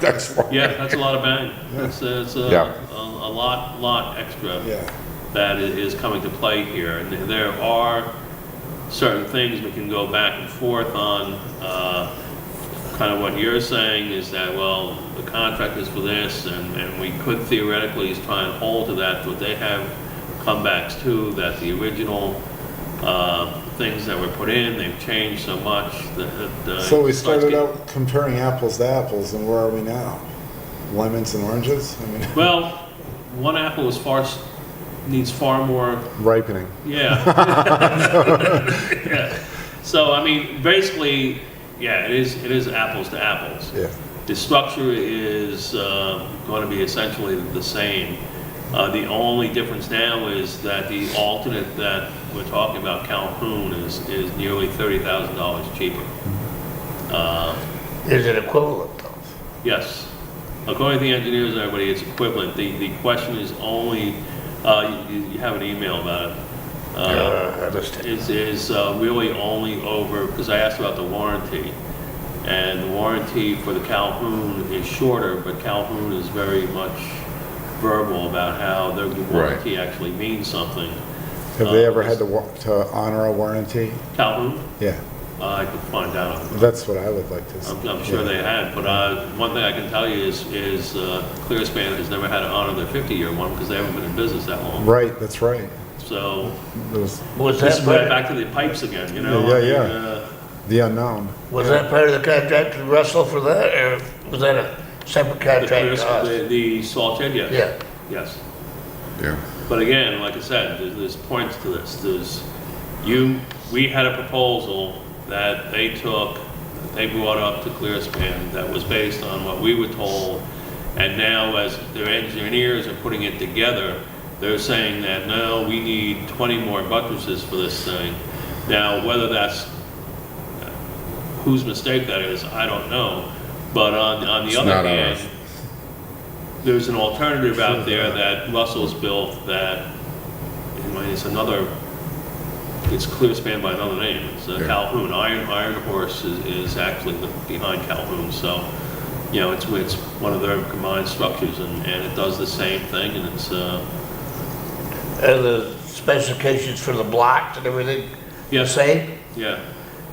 That's why. Yeah, that's a lot of bang. That's, that's a, Yeah. a a lot, lot extra Yeah. that i- is coming to play here. And there- there are certain things we can go back and forth on. uh, Kind of what you're saying is that, well, the contract is for this, and, and we could theoretically try and hold to that, but they have comebacks too, that the original uh, things that were put in, they've changed so much that. that, uh, So we it starts started getting- out comparing apples to apples, and where are we now? Lemons and oranges? I mean, Well, one apple is far, s- needs far more, ripening. yeah. Yeah. So, I mean, basically, yeah, it is, it is apples to apples. Yeah. The structure is going to be essentially the same. Uh, The only difference now is that the alternate that we're talking about, Calhoun, is, is nearly $30,000 cheaper. Uh, Is it equivalent though? Yes. According to the engineers and everybody, it's equivalent. The, the question is only, uh, you, you have an email about it. Uh, Uh, I missed it. Is, is uh, really only over, because I asked about the warranty. And the warranty for the Calhoun is shorter, but Calhoun is very much verbal about how their warranty actually means something. Have they ever Oh, had to, wa- to honor a warranty? Calhoun, Yeah, Uh, I could find out. that's what I would like to see. I'm, I'm sure Yeah. they had, but uh, one thing I can tell you is, is uh, ClearSpan has never had to honor their 50-year one because they haven't been in business that long. Right, that's right. So There's Was this that is right part, back to the pipes again, you know? Yeah, I mean, yeah, uh, the unknown. was that part of the contract to Russell for that, or was that a separate The, contract to Clears- us? the, the salt shed, yes. Yeah, Yes. Yeah. But again, like I said, there's, there's points to this. There's, you, we had a proposal that they took, that they brought up to Clearspan that was based on what we were told. And now as their engineers are putting it together, they're saying that, no, we need 20 more buttresses for this thing. Now, whether that's, whose mistake that is, I don't know. But on, on the It's other not hand, ours. there's an alternative out there that Russell's built that, anyway, it's another, it's clear span by another name. It's uh, Yeah. Calhoun. Iron, Iron Horse is, is actually the- behind Calhoun, so, you know, it's, it's one of their combined structures and, and it does the same thing and it's, uh, and the specifications for the blocks and everything, the yes, same? yeah.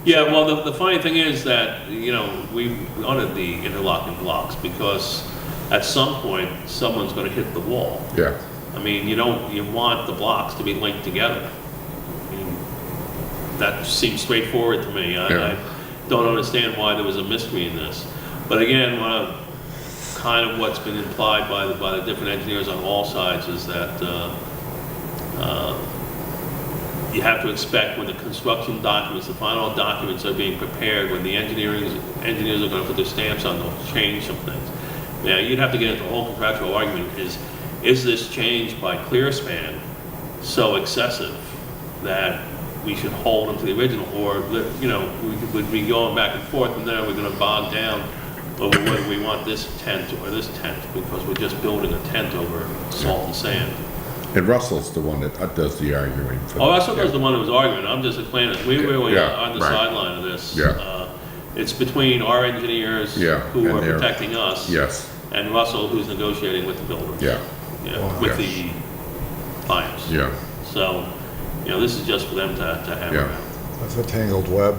Yeah, well, the, the funny thing is that, you know, we wanted the interlocking blocks because at some point, someone's gonna hit the wall. Yeah. I mean, you don't, you want the blocks to be linked together. I mean, That seems straightforward to me. I, Yeah. I don't understand why there was a mystery in this. But again, one of, kind of what's been implied by the, by the different engineers on all sides is that, uh, uh, you have to expect when the construction documents, the final documents are being prepared, when the engineering, engineers are gonna put their stamps on, they'll change some things. Now, you'd have to get into a whole contractual argument, is, is this change by Clearspan so excessive that we should hold them to the original, or, you know, we could- we'd be going back and forth, and then we're gonna bog down over whether we want this tent or this tent, because we're just building a tent over salt and sand. And Russell's the one that uh, does the arguing for. Oh, that, Russell was the one who was arguing, I'm just explaining, we were really Yeah, on the right. sideline of this. Yeah. Uh, It's between our engineers Yeah, who and are they're- protecting us. Yes, And Russell who's negotiating with the builders. yeah, Oh, Yeah, with the Yes. clients. yeah, So, you know, this is just for them to, to hammer Yeah. out. That's a tangled web.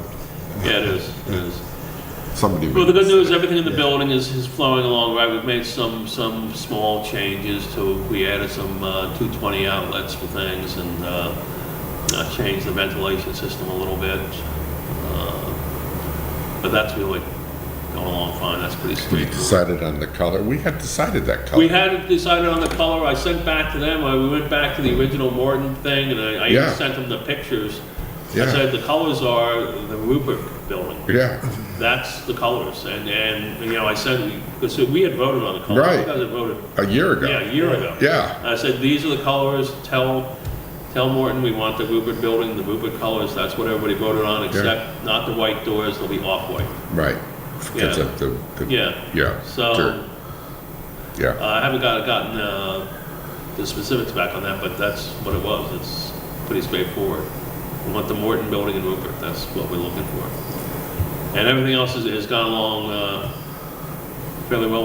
Yeah, it is, it is. somebody. Well, the good would- news, everything in the Yeah. building is, is flowing along, right? We've made some, some small changes to, we added some, uh, two twenty outlets for things and, uh, uh, changed the ventilation system a little bit. Uh, But that's really going along fine, that's pretty We sweet. decided on the color, we had decided that color. We hadn't decided on the color, I sent back to them, I, we went back to the original Morton thing, and I, I even Yeah. sent them the pictures. I Yeah. said, the colors are the Rupert building, Yeah, that's the colors, and, and, you know, I said, because we had voted on the colors. You Right. guys had voted, a year ago. yeah, a year ago. Yeah, I said, these are the colors, tell, tell Morton we want the Rupert building, the Rupert colors, that's what everybody voted on, except not the white doors, they'll be off-white, right. Because Yeah. of the, the- yeah. yeah, So, uh, dirt, yeah, I haven't got, gotten, uh, the specifics back on that, but that's what it was, it's pretty straightforward. We want the Morton building in Rupert, that's what we're looking for. And everything else has, has gone along, uh, fairly well